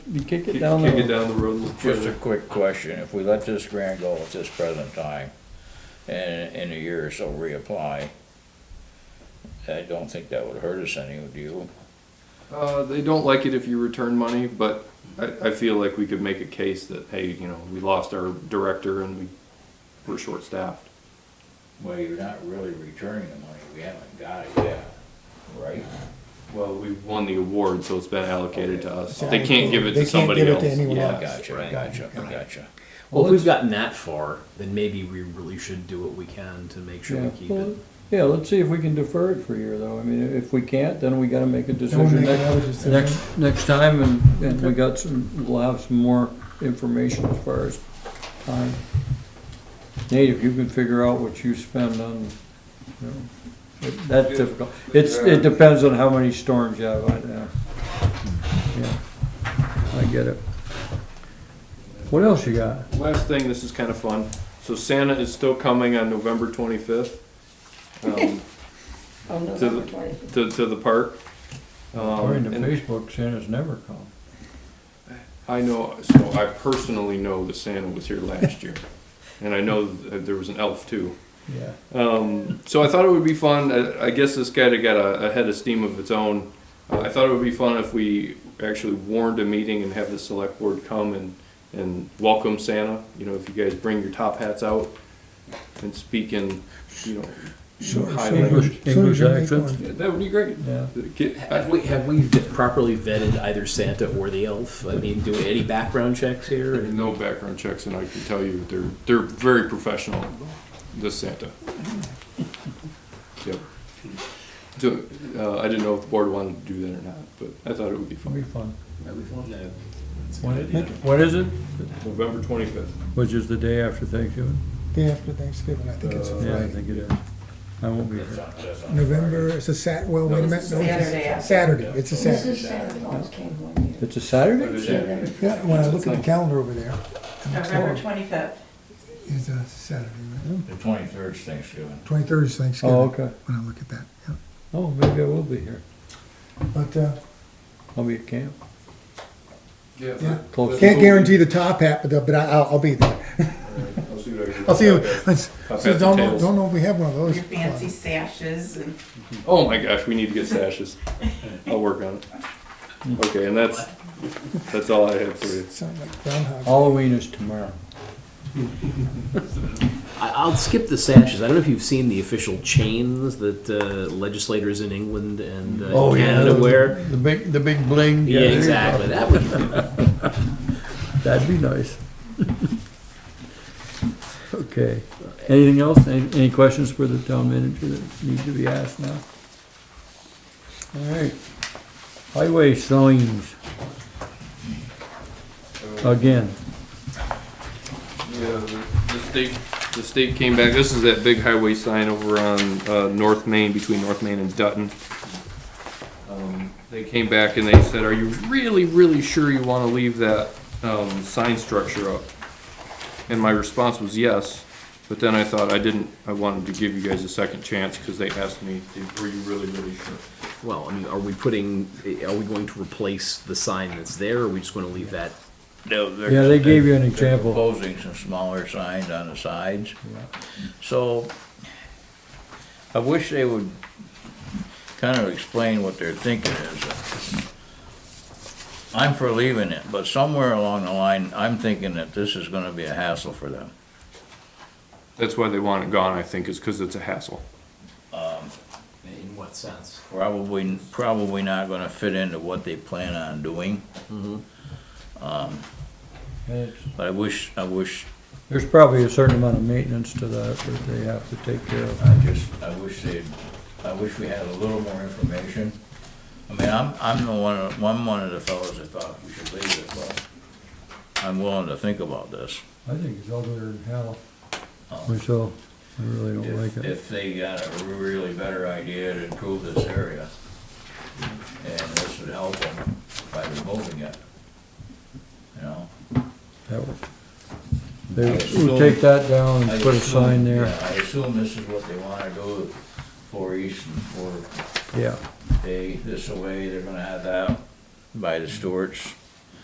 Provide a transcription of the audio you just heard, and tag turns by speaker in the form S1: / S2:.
S1: You kick it
S2: Kick
S1: down the
S2: kick it
S1: road.
S2: down the road a little
S3: Just a
S2: further.
S3: quick question, if we let this grant go at this present time, and in a year or so reapply, I don't think that would hurt us any, do you?
S2: Uh, they don't like it if you return money, but I, I feel like we could make a case that, hey, you know, we lost our director and we were short-staffed.
S3: Well, you're not really returning the money, we haven't got it yet, right?
S2: Well, we won the award, so it's been allocated to us.
S4: So
S2: They can't give it to
S4: they can't
S2: somebody
S4: give it
S2: else.
S4: to anyone
S2: Yeah.
S4: else.
S3: Gotcha, gotcha, gotcha.
S5: Well, if we've gotten that far, then maybe we really should do what we can to make sure
S1: Yeah.
S5: we keep
S1: Well,
S5: it.
S1: Yeah, let's see if we can defer it for a year though. I mean, if we can't, then we gotta make a
S4: Then we
S1: decision
S4: make
S1: next,
S4: another decision.
S1: next, next time and, and we got some, we'll have some more information as far as time. Nate, if you can figure out what you spend on, you know, it- that's difficult. It's, it depends on how many storms you have, I, yeah. Yeah, I get it. What else you got?
S2: Last thing, this is kind of fun. So Santa is still coming on November 25th um, to,
S6: On November
S2: the,
S6: 25th.
S2: to, to the park.
S1: According to
S2: Um, and
S1: Facebook, Santa's never come.
S2: I know, so I personally know that Santa was here last year. And I know that there was an elf too.
S1: Yeah.
S2: Um, so I thought it would be fun. I, I guess this kind of got a, a head of steam of its own. Uh, I thought it would be fun if we actually warned a meeting and have the select board come and, and welcome Santa. You know, if you guys bring your top hats out and speak in, you know, high language.
S4: English accent.
S2: Yeah, that would be great.
S1: Yeah.
S2: Get-
S5: Have we have we v- properly vetted either Santa or the elf? I mean, do any background checks here?
S2: There's
S5: And
S2: no background checks, and I can tell you they're they're very professional. This Santa. Yep. So uh, I didn't know if the board wanted to do that or not, but I thought it would be
S1: It'll be
S2: fun.
S1: fun.
S5: idea.
S1: What is it?
S2: November twenty fifth.
S1: Which is the day after Thanksgiving?
S4: Day after Thanksgiving, I think it's a
S1: Yeah, I
S4: Friday.
S1: think it is. I won't be here.
S4: November, it's a Sat, well, wait a minute. no, it's a
S6: Saturday after.
S4: Saturday, it's a
S6: This
S4: Saturday.
S6: is Saturday, oh, it came one year.
S1: It's a Saturday?
S6: November
S4: Yeah, when I look at the calendar over there,
S7: November twenty-fifth.
S4: it's a Saturday, right?
S3: The twenty-third's Thanksgiving.
S4: Twenty-third is Thanksgiving.
S1: Oh, okay.
S4: When I look at that, yeah.
S1: Oh, maybe I will be here.
S4: But, uh,
S1: I'll be at camp.
S4: yeah.
S1: Close.
S4: Can't guarantee the top hat, but, but I- I'll, I'll be there.
S2: I'll see what I can do.
S4: I'll see you.
S2: Okay.
S4: let's-
S2: Top hats
S4: so
S2: and
S4: Don't, know-
S2: tails.
S4: don't know if we have one of those.
S7: Your fancy sashes and
S2: Oh my gosh, we need to get sashes. I'll work on it. Okay, and that's that's all I have for you.
S4: Sound like groundhog.
S1: Halloween is tomorrow.
S5: I, I'll skip the sashes. I don't know if you've seen the official chains that uh, legislators in England and uh, Canada wear.
S1: The big, the big bling.
S5: Yeah, exactly. That would
S1: That'd be nice. Okay. Anything else? Any, any questions for the town manager that need to be asked now? All right. Highway signs. Again.
S2: Yeah, the state, the state came back, this is that big highway sign over on, uh, North Main, between North Main and Dutton. Um, They came back and they said, are you really, really sure you wanna leave that, um, sign structure up? And my response was yes, but then I thought I didn't, I wanted to give you guys a second chance, cause they asked me, were you really, really sure?
S5: Well, I mean, are we putting? Are we going to replace the sign that's there? Or are we just going to leave that?
S3: No, they're.
S1: Yeah, they gave you an
S3: They're
S1: example.
S3: proposing some smaller signs on the sides. So I wish they would kind of explain what their thinking is. I'm for leaving it, but somewhere along the line, I'm thinking that this is gonna be a hassle for them.
S2: That's why they want it gone, I think, is cause it's a hassle.
S5: In what sense?
S3: Probably, probably not gonna fit into what they plan on doing, but I wish, I wish,
S1: There's probably a certain amount of maintenance to that that they have to take care of.
S3: I just, I wish they'd, I wish we had a little more information. I mean, I'm, I'm the one, of- I'm one of the fellows that thought we should leave it, but I'm willing to think about this.
S1: I think it's uglier than hell. Myself, I really don't like
S3: If,
S1: it.
S3: if they got a really better idea to improve this area, and this would help them by removing it, you know?
S1: That would- They would take that down
S3: I
S1: and put a
S3: assume-
S1: sign
S3: yeah,
S1: there,
S3: I assume this is what they wanna do for East and for
S1: yeah.
S3: they, this away, they're gonna have that by the Stewarts.